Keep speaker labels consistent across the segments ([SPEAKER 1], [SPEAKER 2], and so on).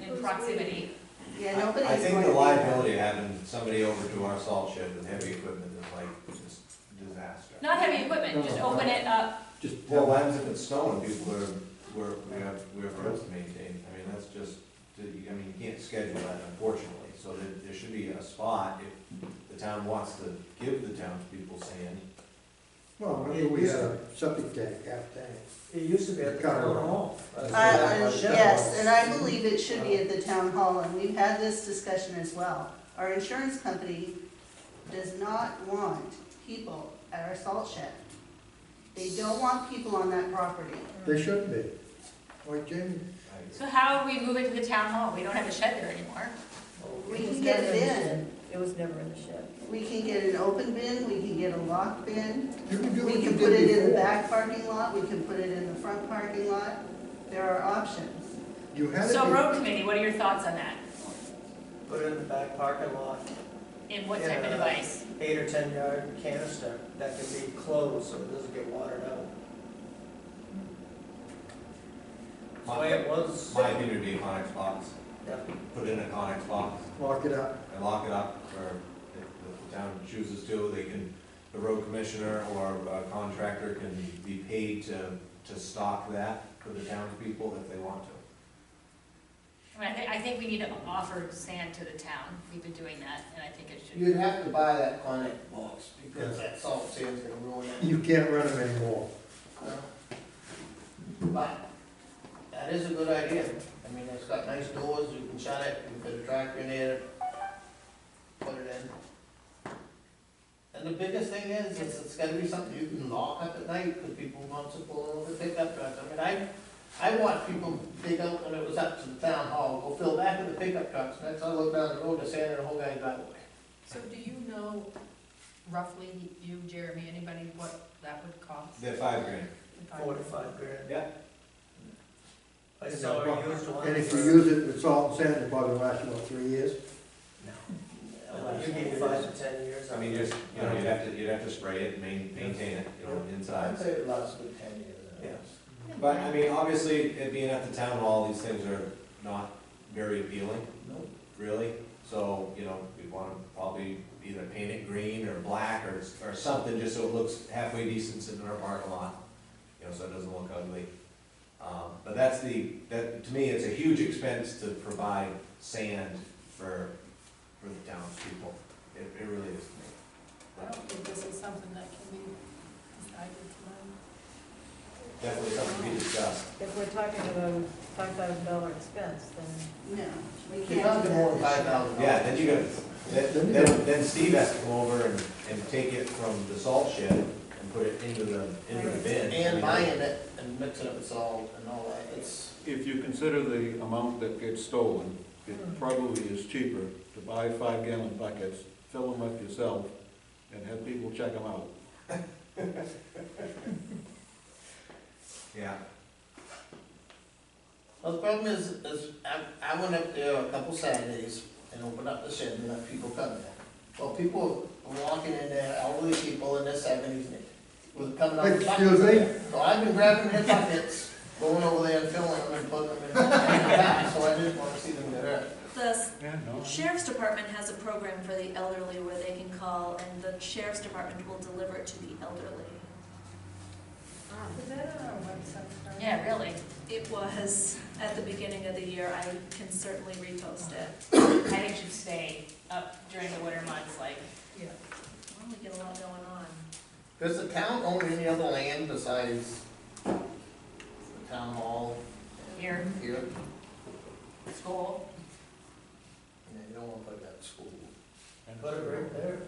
[SPEAKER 1] in proximity.
[SPEAKER 2] Yeah, nobody's.
[SPEAKER 3] I think the
[SPEAKER 2] going to-
[SPEAKER 3] liability of having somebody over to our salt shed with heavy equipment is like just disaster.
[SPEAKER 1] Not heavy equipment, just open it up.
[SPEAKER 4] Just,
[SPEAKER 3] Well, what happens if it's snowing, people are, we're, we have, we have roads to maintain, I mean, that's just, I mean, you can't schedule that unfortunately. So there, there should be a spot if the town wants to give the townspeople sand.
[SPEAKER 5] Well, it
[SPEAKER 6] We
[SPEAKER 5] used
[SPEAKER 6] had
[SPEAKER 5] to,
[SPEAKER 6] a septic tank, half tank.
[SPEAKER 5] it used to be at the
[SPEAKER 6] Cover.
[SPEAKER 5] town hall.
[SPEAKER 6] I-
[SPEAKER 2] I-
[SPEAKER 6] Yeah,
[SPEAKER 2] I-
[SPEAKER 6] my shed
[SPEAKER 2] Yes,
[SPEAKER 6] was-
[SPEAKER 2] and I believe it should be at the town hall, and we've had this discussion as well. Our insurance company does not want people at our salt shed. They don't want people on that property.
[SPEAKER 6] They shouldn't be. Like Jamie,
[SPEAKER 3] I-
[SPEAKER 1] So how do we move it to the town hall? We don't have a shed there anymore.
[SPEAKER 2] We can get it in.
[SPEAKER 7] It was never in the shed.
[SPEAKER 2] We can get an open bin, we can get a locked bin,
[SPEAKER 6] you can do
[SPEAKER 2] we
[SPEAKER 6] what you
[SPEAKER 2] can
[SPEAKER 6] did
[SPEAKER 2] put it in the
[SPEAKER 6] before.
[SPEAKER 2] back parking lot, we can put it in the front parking lot. There are options.
[SPEAKER 6] You had
[SPEAKER 1] So
[SPEAKER 6] it,
[SPEAKER 1] road committee, what are your thoughts on that?
[SPEAKER 5] Put it in the back parking lot,
[SPEAKER 1] And what type of
[SPEAKER 5] Yeah.
[SPEAKER 1] device?
[SPEAKER 5] eight or ten yard canister that can be closed so it doesn't get watered out. That's the way it was.
[SPEAKER 3] My opinion would be a Conex box,
[SPEAKER 5] Yeah.
[SPEAKER 3] put in a Conex box
[SPEAKER 6] lock it up.
[SPEAKER 3] and lock it up, or if the town chooses to, they can, the road commissioner or a contractor can be paid to, to stock that for the townspeople if they want to.
[SPEAKER 1] I mean, I think, I think we need to offer sand to the town. We've been doing that, and I think it should.
[SPEAKER 8] You'd have to buy that Conex box, because that salt sand's gonna ruin it.
[SPEAKER 6] You can't run them anymore.
[SPEAKER 8] But that is a good idea. I mean, it's got nice doors, you can shut it, you can put a tractor in there, put it in. And the biggest thing is, is it's gotta be something you can lock up at night, because people want to pull over the pickup trucks. I mean, I, I watched people dig out when it was up to the town hall, go fill back of the pickup trucks, and that's all look down the road, the sand in the whole guy's driveway.
[SPEAKER 9] So do you know roughly, you, Jeremy, anybody, what that would cost?
[SPEAKER 3] They're five grand.
[SPEAKER 9] if I-
[SPEAKER 5] Four to five grand.
[SPEAKER 3] Yeah.
[SPEAKER 5] I saw a used one.
[SPEAKER 6] And if
[SPEAKER 5] for-
[SPEAKER 6] you use it with salt and sand, it probably lasts, what, three years?
[SPEAKER 5] Uh, You need five to ten years.
[SPEAKER 3] I mean, you're, you know, you'd have to, you'd have to spray it, main, maintain it, you know,
[SPEAKER 8] I'd
[SPEAKER 3] inside.
[SPEAKER 8] say it lasts a good ten years.
[SPEAKER 3] Yes. But, I mean, obviously, it being at the town hall, these things are not very appealing,
[SPEAKER 8] No.
[SPEAKER 3] really. So, you know, we'd wanna probably either paint it green or black or, or something, just so it looks halfway decent sitting in our parking lot. You know, so it doesn't look ugly. Um, but that's the, that, to me, it's a huge expense to provide sand for, for the townspeople. It, it really is to me.
[SPEAKER 9] I don't think this is something that can be decided tonight.
[SPEAKER 3] Definitely something to be discussed.
[SPEAKER 7] If we're talking about five thousand dollar expense, then
[SPEAKER 2] No, we
[SPEAKER 8] You're
[SPEAKER 2] can't
[SPEAKER 8] not
[SPEAKER 2] do
[SPEAKER 8] gonna want five
[SPEAKER 2] that.
[SPEAKER 8] thousand dollars.
[SPEAKER 3] Yeah, then you gotta, then, then- then Steve has to come over and, and take it from the salt shed and put it into the, into the bin.
[SPEAKER 8] And buying it and mixing up with salt and all that, it's.
[SPEAKER 10] If you consider the amount that gets stolen,
[SPEAKER 7] Hmm.
[SPEAKER 10] it probably is cheaper to buy five gallon buckets, fill them up yourself, and have people check them out.
[SPEAKER 3] Yeah,
[SPEAKER 8] Well, the problem is, is I, I went up there a couple Saturdays and opened up the shed and let people come in. Well, people were walking in there, elderly people in their seventies, was coming up. with buckets.
[SPEAKER 6] Excuse me?
[SPEAKER 8] So I've been grabbing their buckets, going over there and filling them and putting them in the back, so I didn't wanna see them get hurt.
[SPEAKER 11] The
[SPEAKER 10] Yeah, no.
[SPEAKER 11] sheriff's department has a program for the elderly where they can call and the sheriff's department will deliver it to the elderly.
[SPEAKER 9] Ah, Is that on our website? Carmen?
[SPEAKER 1] Yeah, really.
[SPEAKER 11] It was at the beginning of the year, I can certainly repost it.
[SPEAKER 1] I think it should stay up during the winter months, like,
[SPEAKER 9] Yeah.
[SPEAKER 11] Well, we get a lot going on.
[SPEAKER 8] Does the town own any other land besides the town hall
[SPEAKER 1] here,
[SPEAKER 8] here?
[SPEAKER 1] school.
[SPEAKER 8] Yeah, you don't wanna put that school.
[SPEAKER 10] And-
[SPEAKER 5] Put it right there.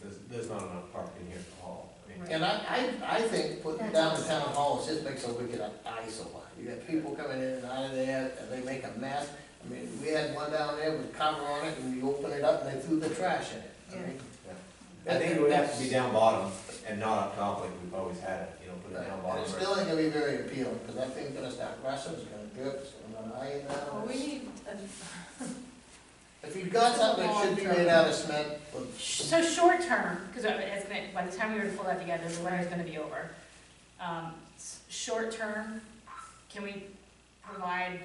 [SPEAKER 3] there's, there's not enough parking here at all. I mean,
[SPEAKER 8] And I, I, I think putting down the town hall it just makes a wicked eyesore. You got people coming in and out of there, and they make a mess. I mean, we had one down there with cover on it, and you open it up, and they threw the trash in it. I mean,
[SPEAKER 3] I think it would have to be down bottom and not up top like we've always had it, you know, put it down
[SPEAKER 8] And
[SPEAKER 3] bottom.
[SPEAKER 8] it
[SPEAKER 3] or-
[SPEAKER 8] still ain't gonna be very appealing, because that thing's gonna start rusting, it's gonna drip, it's gonna iron
[SPEAKER 9] Well,
[SPEAKER 8] out.
[SPEAKER 9] we need, a-
[SPEAKER 8] If you've got something that should be made out of cement, well,
[SPEAKER 1] So short term, because it's gonna, by the time we were to pull that together, the winter's gonna be over. Um, s- Short term, can we provide